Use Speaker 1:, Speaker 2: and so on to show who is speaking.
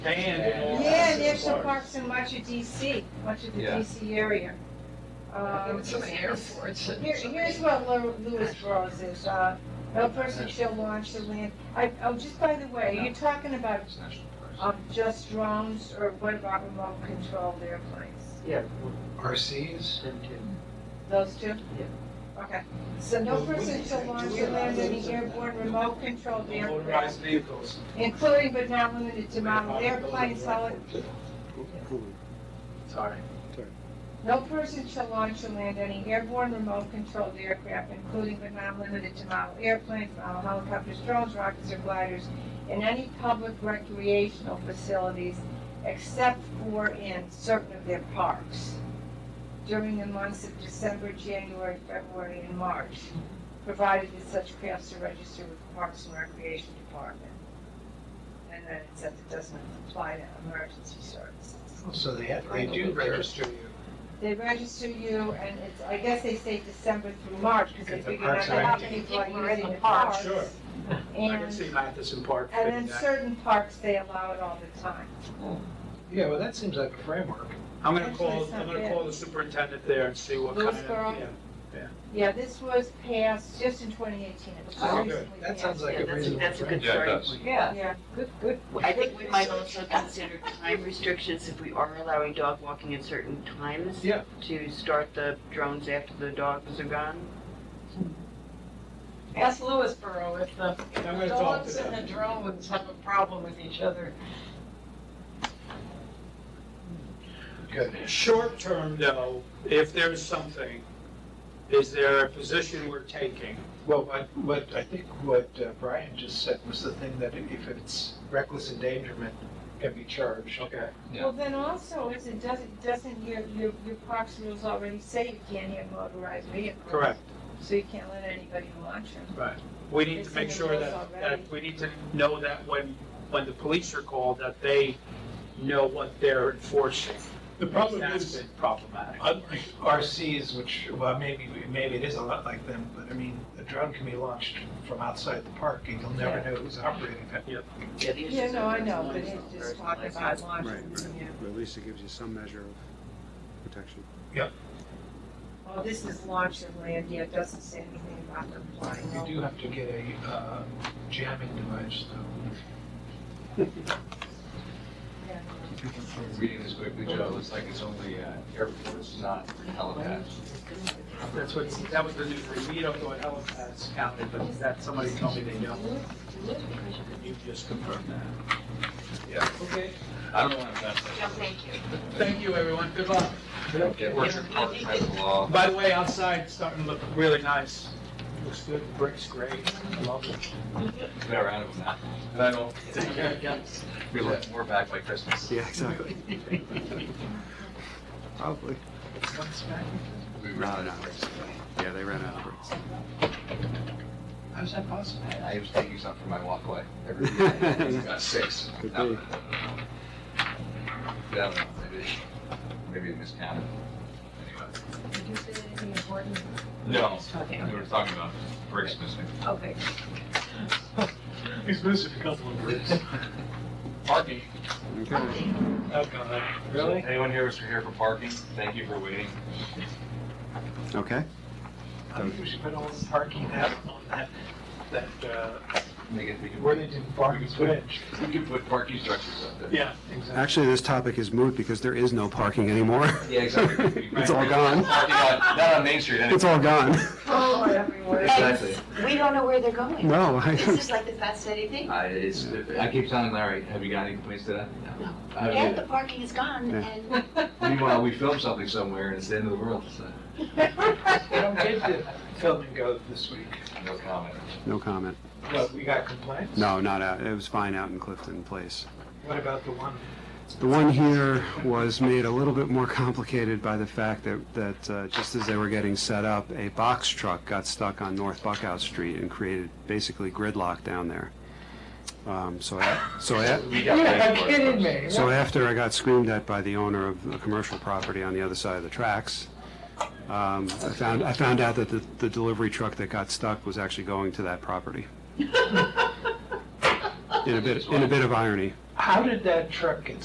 Speaker 1: Dan.
Speaker 2: Yeah, National Parks in much of DC, much of the
Speaker 1: Yeah.
Speaker 2: DC area. Um,
Speaker 3: So many airports. and
Speaker 2: Here,
Speaker 3: so many-
Speaker 2: here's what Lew- Lewisboro is, uh, no person shall launch the land, I, oh, just by the way, are you talking about,
Speaker 1: It's national parks.
Speaker 2: um, just drones or what about remote controlled airplanes?
Speaker 4: Yeah.
Speaker 1: RCs?
Speaker 2: Those two?
Speaker 4: Yeah.
Speaker 2: Okay, so no
Speaker 5: Well, we-
Speaker 2: person shall launch
Speaker 5: do we
Speaker 2: or land
Speaker 5: allow
Speaker 2: any
Speaker 5: those?
Speaker 2: airborne remote controlled aircraft,
Speaker 5: Motorized vehicles.
Speaker 2: including but not limited to model airplanes, solid,
Speaker 1: Sorry.
Speaker 2: No person shall launch or land any airborne remote-controlled aircraft, including but not limited to model airplanes, model helicopters, drones, rockets, or gliders, in any public recreational facilities except for in certain of their parks during the months of December, January, February, and March, provided that such crafts are registered with the Parks and Recreation Department. And then it says it doesn't apply to emergency services.
Speaker 1: So they have, they do register you.
Speaker 2: They register you, and it's, I guess they say December through March, because
Speaker 1: Because the
Speaker 2: they figure out
Speaker 1: parks are
Speaker 2: how
Speaker 1: empty.
Speaker 2: many people are
Speaker 3: People are in
Speaker 2: using
Speaker 3: the
Speaker 2: the
Speaker 3: park,
Speaker 2: parks.
Speaker 5: sure. I can
Speaker 2: And,
Speaker 5: see Matheson Park
Speaker 2: and
Speaker 5: fitting
Speaker 2: then
Speaker 5: that.
Speaker 2: certain parks, they allow it all the time.
Speaker 1: Yeah, well, that seems like a framework.
Speaker 5: I'm gonna
Speaker 2: Actually,
Speaker 5: call,
Speaker 2: it's not
Speaker 5: I'm gonna
Speaker 2: bad.
Speaker 5: call the superintendent there and see what kind of.
Speaker 2: Lewisboro?
Speaker 5: yeah.
Speaker 2: Yeah, this was passed just in twenty eighteen, it was
Speaker 3: Oh,
Speaker 2: just
Speaker 3: good.
Speaker 2: recently
Speaker 1: That
Speaker 2: passed.
Speaker 1: sounds like
Speaker 6: Yeah,
Speaker 1: a
Speaker 6: that's a-
Speaker 1: reasonable
Speaker 6: that's a good-
Speaker 1: framework.
Speaker 7: Yeah, it does.
Speaker 3: Yeah,
Speaker 2: Yeah,
Speaker 3: good, good.
Speaker 6: I think we might also consider time restrictions if we are allowing dog walking at certain times.
Speaker 1: Yeah.
Speaker 6: To start the drones after the dogs are gone.
Speaker 3: Ask Lewisboro if the
Speaker 5: I'm gonna talk to
Speaker 3: dogs and
Speaker 5: them.
Speaker 3: the drones have a problem with each other.
Speaker 1: Good.
Speaker 5: Short term though, if there's something, is there a position we're taking?
Speaker 1: Well, what, what, I think what uh, Brian just said was the thing that if it's reckless endangerment, can be charged.
Speaker 5: Okay.
Speaker 7: Yeah.
Speaker 2: well, then also, is it, doesn't, doesn't your, your, your parks rules already say you can't have motorized vehicles?
Speaker 5: Correct.
Speaker 2: So you can't let anybody launch them.
Speaker 5: We need
Speaker 2: It's
Speaker 5: to
Speaker 2: in
Speaker 5: make
Speaker 2: the
Speaker 5: sure
Speaker 2: rules
Speaker 5: that,
Speaker 2: already.
Speaker 5: that, we need to know that when, when the police are called, that they know what they're enforcing.
Speaker 8: The problem
Speaker 5: That's
Speaker 8: is,
Speaker 5: been problematic.
Speaker 8: unlike
Speaker 1: RCs, which, well, maybe, maybe it is a lot like them, but I mean, a drone can be launched from outside the park and you'll never know who's operating it.
Speaker 6: Yeah, the
Speaker 2: Yeah,
Speaker 6: issues
Speaker 2: no,
Speaker 6: are
Speaker 2: I know, but
Speaker 6: personalized,
Speaker 2: it's just
Speaker 6: not
Speaker 2: talking about
Speaker 6: personalized.
Speaker 2: launching
Speaker 9: Right,
Speaker 2: them, yeah.
Speaker 9: But at least it gives you some measure of protection.
Speaker 2: Well, this is launch of land, yeah, it doesn't say anything about them flying over.
Speaker 1: You do have to get a uh, jamming device, though.
Speaker 7: Reading this quickly, Joe, it looks like it's only uh, airports, not helipads.
Speaker 5: That's what, that was the news, we don't go at helipads counted, but that, somebody told me they don't. You just confirmed that.
Speaker 7: Yeah.
Speaker 5: Okay,
Speaker 7: I don't want to mess
Speaker 6: Yeah, Oh, thank you.
Speaker 5: thank you, everyone, good luck.
Speaker 7: up. Airports are part of the law.
Speaker 5: By the way, outside, it's starting to look really nice. Looks good, brick's great, I love it.
Speaker 7: They're out of them now. And I don't,
Speaker 5: Yes.
Speaker 7: we'll have more back by Christmas.
Speaker 9: Yeah, exactly. Probably.
Speaker 7: We
Speaker 9: No,
Speaker 7: ran
Speaker 9: no.
Speaker 7: out of bricks.
Speaker 9: Yeah, they ran out of bricks.
Speaker 5: How's that possible?
Speaker 7: I I was taking some from my walkway. Every weekend, I got six.
Speaker 9: Could
Speaker 7: No.
Speaker 9: be.
Speaker 7: Yeah, I don't know, maybe, maybe it miscounted. Anyway.
Speaker 3: Did you say anything important?
Speaker 7: No,
Speaker 3: Okay.
Speaker 7: we were talking about bricks missing.
Speaker 3: Okay.
Speaker 8: he's missing a couple of words.
Speaker 7: Parking.
Speaker 9: Okay.
Speaker 5: Oh, God, really?
Speaker 7: Anyone here was here for parking? Thank you for waiting.
Speaker 9: Okay.
Speaker 1: I think we should put all the parking out on that, that, uh,
Speaker 7: Make it, we can,
Speaker 1: where they did Barnes Bridge.
Speaker 7: we can put parking structures up there.
Speaker 5: Yeah, exactly.
Speaker 9: Actually, this topic is moot because there is no parking anymore.
Speaker 7: Yeah, exactly.
Speaker 9: It's all gone.
Speaker 7: Parking lot- Not on Main Street anyway.
Speaker 9: It's all gone.
Speaker 2: Oh, everywhere.
Speaker 7: Exactly.
Speaker 6: We don't know where they're going.
Speaker 9: No, I,
Speaker 6: This is like the fascinating thing.
Speaker 7: I, it's, I keep telling Larry, have you got any complaints today? No. I haven't
Speaker 6: Yeah, the
Speaker 7: either.
Speaker 6: parking is gone
Speaker 9: Yeah.
Speaker 6: and
Speaker 7: Meanwhile, we filmed something somewhere and it's the end of the world, so
Speaker 1: They don't get to film and go this week.
Speaker 7: no comment.
Speaker 9: no comment.
Speaker 1: What, we got complaints?
Speaker 9: No, not out. It was fine out in Clifton Place.
Speaker 1: What about the one?
Speaker 9: The one here was made a little bit more complicated by the fact that, that uh, just as they were getting set up, a box truck got stuck on North Buckout Street and created basically gridlock down there. Um, So, I- so, I-
Speaker 7: We got paid for it.
Speaker 9: so after I got screamed at by the owner of a commercial property on the other side of the tracks, um, I found, I found out that the, the delivery truck that got stuck was actually going to that property. in a bit, in a bit of irony.
Speaker 1: How did that truck get